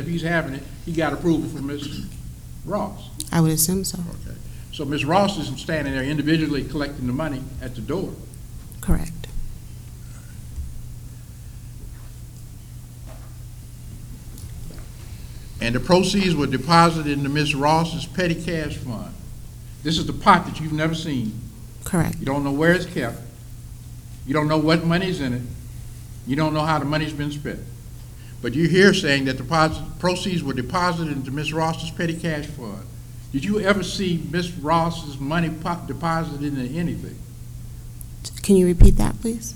If he's having it, he got approval from Ms. Ross. I would assume so. Okay. So Ms. Ross isn't standing there individually collecting the money at the door. Correct. And the proceeds were deposited into Ms. Ross's petty cash fund. This is the pot that you've never seen. Correct. You don't know where it's kept. You don't know what money's in it. You don't know how the money's been spent. But you're here saying that the pos- proceeds were deposited into Ms. Ross's petty cash fund. Did you ever see Ms. Ross's money po- deposited into anything? Can you repeat that, please?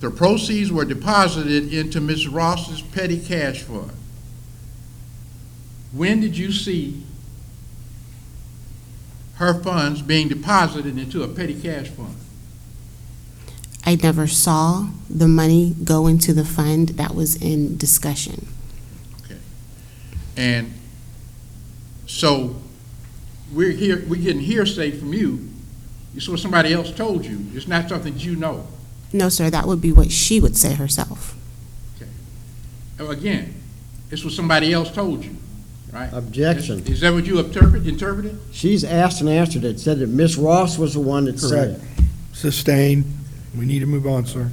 The proceeds were deposited into Ms. Ross's petty cash fund. When did you see her funds being deposited into a petty cash fund? I never saw the money go into the fund that was in discussion. And so we're here, we're getting hearsay from you. It's what somebody else told you. It's not something that you know. No, sir, that would be what she would say herself. Again, it's what somebody else told you, right? Objection. Is that what you interpret, interpreted? She's asked and answered it, said that Miss Ross was the one that said it. Sustained. We need to move on, sir.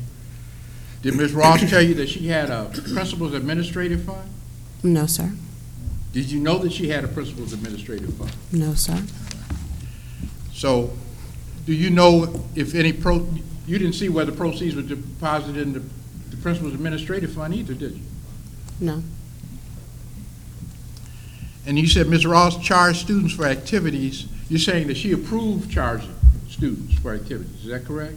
Did Ms. Ross tell you that she had a principal's administrative fund? No, sir. Did you know that she had a principal's administrative fund? No, sir. So, do you know if any pro, you didn't see whether proceeds were deposited in the the principal's administrative fund either, did you? No. And you said Ms. Ross charged students for activities. You're saying that she approved charging students for activities, is that correct?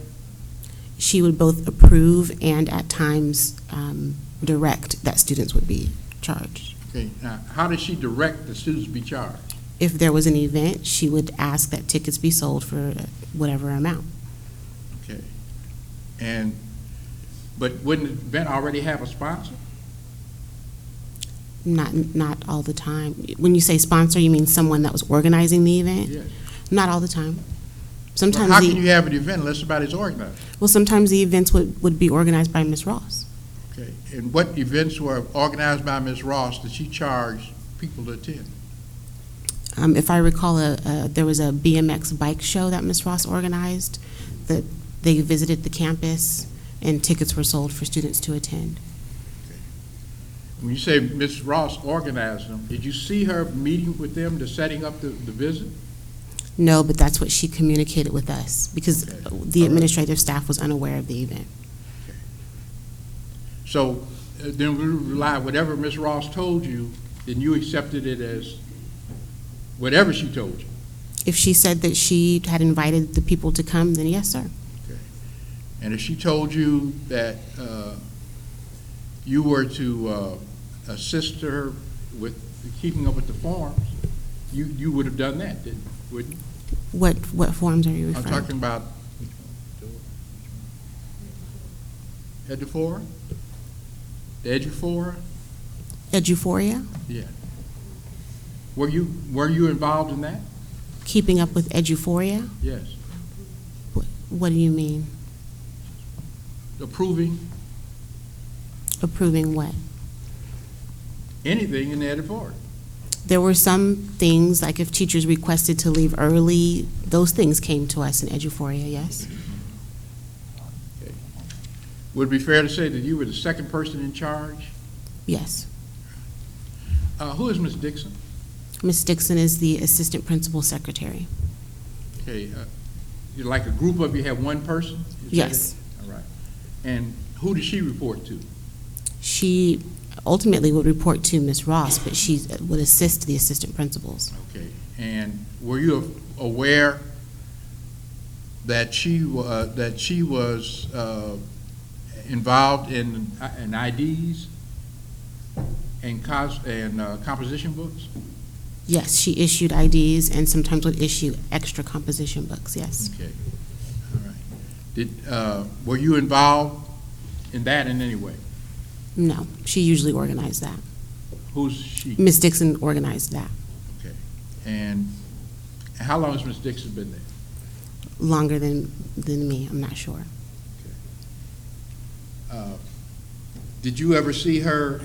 She would both approve and at times um, direct that students would be charged. Okay, now, how did she direct the students to be charged? If there was an event, she would ask that tickets be sold for whatever amount. Okay. And, but wouldn't the event already have a sponsor? Not, not all the time. When you say sponsor, you mean someone that was organizing the event? Yes. Not all the time. Well, Sometimes How the- can you have an event unless somebody's organized? Well, sometimes the events would, would be organized by Ms. Ross. Okay, and what events were organized by Ms. Ross that she charged people to attend? Um, if I recall, uh, uh, there was a BMX bike show that Ms. Ross organized, that they visited the campus, and tickets were sold for students to attend. When you say Ms. Ross organized them, did you see her meeting with them to setting up the, the visit? No, but that's what she communicated with us, because Okay. the administrative staff was unaware of the event. So uh, then we rely, whatever Ms. Ross told you, then you accepted it as whatever she told you. If she said that she had invited the people to come, then yes, sir. And if she told you that uh, you were to uh, assist her with keeping up with the forms, you, you would have done that, didn't, wouldn't you? What, what forms are you I'm referring? talking about Edufora? The Edufora? Eduphoria, Yeah. Were you, were you involved in that? keeping up with Eduphoria? Yes. Wh- What do you mean? Approving Approving what? anything in the Edufora? There were some things, like if teachers requested to leave early, those things came to us in Eduphoria, yes? Would it be fair to say that you were the second person in charge? Yes. Uh, Who is Ms. Dixon? Ms. Dixon is the assistant principal secretary. Okay, uh, you like a group of you have one person? Is that it? Yes. All right. And who does she report to? She ultimately would report to Ms. Ross, but she would assist the assistant principals. Okay, and were you aware that she, wa- uh, that she was uh, involved in uh, in IDs and cos, and uh, composition books? Yes, she issued IDs and sometimes would issue extra composition books, yes. Okay, all right. Did, uh, were you involved in that in any way? No, she usually organized that. Who's she? Ms. Dixon organized that Okay, and how long has Ms. Dixon been there? longer than, than me, I'm not sure. Uh, Did you ever see her